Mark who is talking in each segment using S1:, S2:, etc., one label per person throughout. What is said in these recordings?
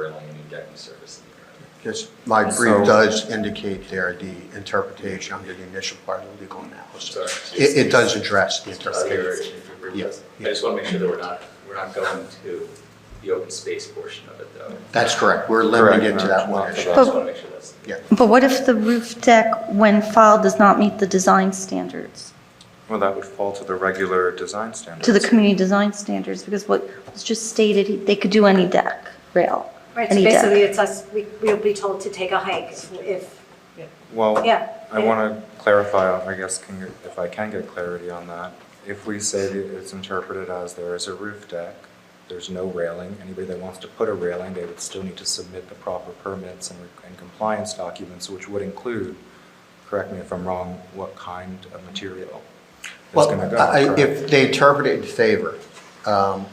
S1: injecting service in the environment.
S2: Just, my brief
S3: So-
S2: does indicate there the interpretation under the initial part of the legal
S1: Sorry.
S2: analysis. It, it does address the
S1: Earlier,
S2: interpretation.
S1: if we were-
S2: Yeah,
S1: I just want to make sure that we're not, we're not going to the open space portion of it, though.
S2: That's correct, we're limiting it to that one
S1: I just
S2: issue.
S1: want to make sure that's.
S2: Yeah,
S4: But what if the roof deck, when filed, does not meet the design standards,
S3: Well, that would fall to the regular design standards.
S4: to the community design standards? Because what was just stated, they could do any deck, rail,
S5: Right, so
S4: any deck.
S5: basically, it's us, we, we'll be told to take a hike if- if,
S3: Well,
S5: Yeah.
S3: I want to clarify, I guess, can you- if I can get clarity on that. If we say that it's interpreted as there is a roof deck, there's no railing, anybody that wants to put a railing, they would still need to submit the proper permits and and compliance documents, which would include, correct me if I'm wrong, what kind of material is going to
S2: well,
S3: go.
S2: I-
S3: correct?
S2: if they interpret it in favor, um,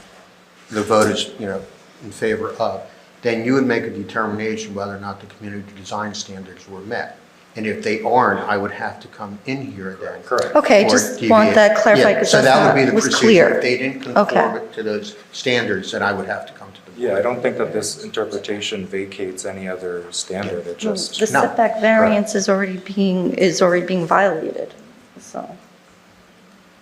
S2: the vote is, you know, in favor of, then you would make a determination whether or not the community design standards were met. And if they aren't, I would have to come in here then.
S3: Correct.
S4: Okay,
S2: or
S4: just
S2: deviate.
S4: want that clarified
S2: Yeah,
S4: because
S2: So
S4: that's
S2: that would be
S4: not,
S2: the
S4: was
S2: procedure.
S4: clear.
S2: If they didn't
S4: Okay.
S2: conform it to those standards, then I would have to come to the board.
S3: Yeah, I don't think that this interpretation vacates any other standard, it
S4: Well,
S3: just.
S4: The
S2: No.
S4: setback variance is already being, is already being violated, so.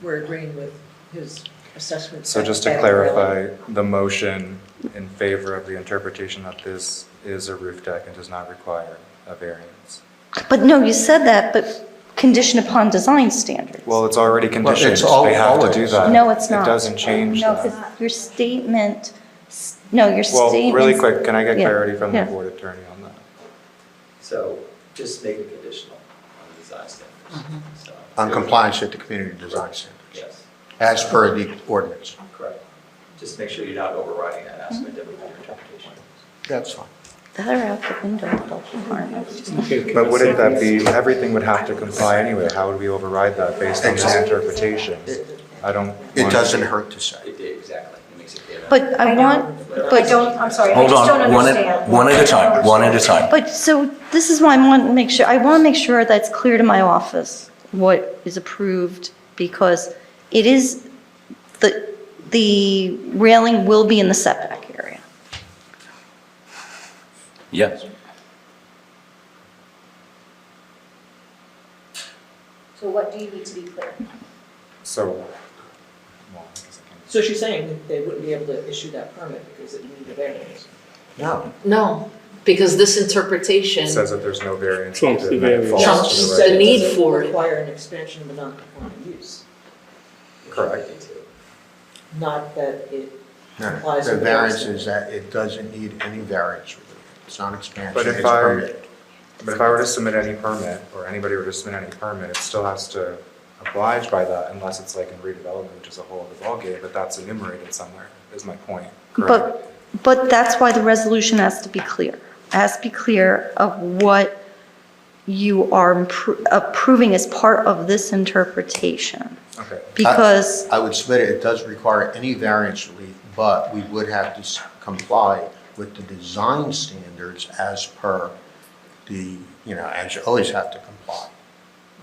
S6: we're agreeing with his assessment.
S3: So just to
S6: that-
S3: clarify, the motion in favor of the interpretation that this is a roof deck and does not require a variance.
S4: But no, you said that, but conditioned upon design standards.
S3: Well, it's already conditioned,
S2: all-
S3: they have to do
S2: always.
S3: that.
S4: No, it's not.
S3: It doesn't change
S4: No, 'cause
S3: that.
S4: your statement, s- no, your
S3: Well,
S4: statement.
S3: really quick, can I get
S4: Yeah,
S3: clarity from the
S4: yeah.
S3: board attorney on that?
S1: So just make it conditional on the design standards, so.
S2: On compliance with the community design standards,
S1: Yes,
S2: as per the ordinance.
S1: correct. Just make sure you're not overriding that aspect of it with your interpretation.
S2: That's fine.
S4: That are out the window, they'll harm us.
S3: But wouldn't that be, everything would have to comply anyway, how would we override that based on this
S2: Exactly.
S3: interpretation? I don't.
S2: It
S3: want-
S2: doesn't hurt to say.
S1: It did, exactly, it makes it. clear.
S4: But I
S5: I know.
S4: want,
S5: I
S4: but
S5: don't, I'm sorry, I
S7: Hold
S5: just don't
S7: on, one at,
S5: understand.
S7: one at a time, one at a time.
S4: But, so, this is why I want to make sure, I want to make sure that it's clear to my office what is approved, because it is, the, the railing will be in the setback area.
S7: Yes.
S5: So what do you need to be clear?
S3: So. well, I guess I can't-
S6: So she's saying that they wouldn't be able to issue that permit because it needed a variance.
S2: No.
S8: No, because this interpretation,
S3: Says that there's no variance.
S9: Trumps the
S3: and then it
S9: variance.
S3: falls to
S8: Trumps
S3: the
S8: the
S3: right.
S8: need for it.
S6: Doesn't require an expansion of a non-conforming use,
S3: Correct.
S6: not that it
S2: No,
S6: complies
S2: The
S6: with.
S2: variance is that it doesn't need any variance. relief. It's not expansion,
S3: But if
S2: it's
S3: I-
S2: permitted.
S3: But if I were to submit any permit, or anybody were to submit any permit, it still has to oblige by that unless it's like in redevelopment, which is a whole other ballgame, but that's enumerated somewhere, is my point, correct?
S4: But, but that's why the resolution has to be clear. It Has to be clear of what you are appro- approving as part of this interpretation.
S3: Okay,
S4: Because,
S2: I would submit it, it does require any variance relief, but we would have to s- comply with the design standards as per the, you know, as you always have to comply.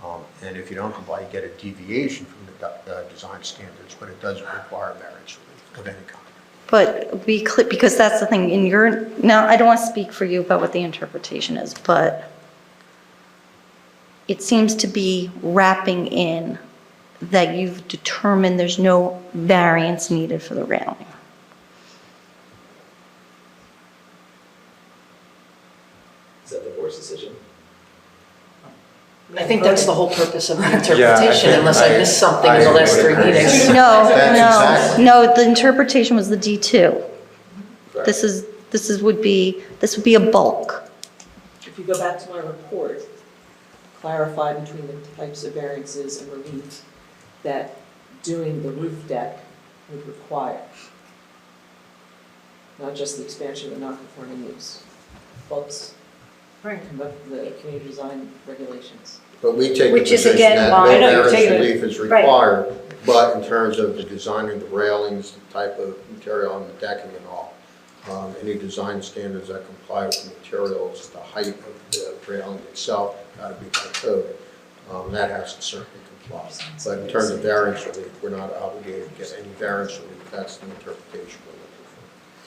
S2: Um, And if you don't comply, you get a deviation from the, du- the design standards, but it doesn't require variance relief of any kind.
S4: but we, cl- because that's the thing, in your, now, I don't want to speak for you about what the interpretation is, but it seems to be wrapping in that you've determined there's no variance needed for the railing.
S1: Is that the board's decision?
S8: I think that's the whole purpose of the
S3: think
S8: interpretation, unless I
S3: I-
S8: missed something in the
S3: I
S8: last
S3: would
S8: three
S3: agree.
S8: meetings.
S4: No,
S2: That's
S4: no, no, the interpretation was the D2. This is, this is, would be, this would be a bulk.
S6: If you go back to my report, clarify between the types of variances and relief that doing the roof deck would require. Not just the expansion of a non-conforming use, Folks,
S5: Right.
S6: come up with the community design regulations.
S2: But we take the
S5: Which is
S2: position
S5: again
S2: that
S5: why-
S2: no
S5: I know,
S6: you're
S2: variance
S6: taking it-
S2: relief is
S5: right.
S2: required, but in terms of the designing, the railings, the type of material and the decking and all, um, any design standards that comply with the materials, the height of the railing itself, gotta be by code. Um, That has to certainly comply. But in terms of variance relief, we're not obligated to get any variance relief, that's the interpretation we're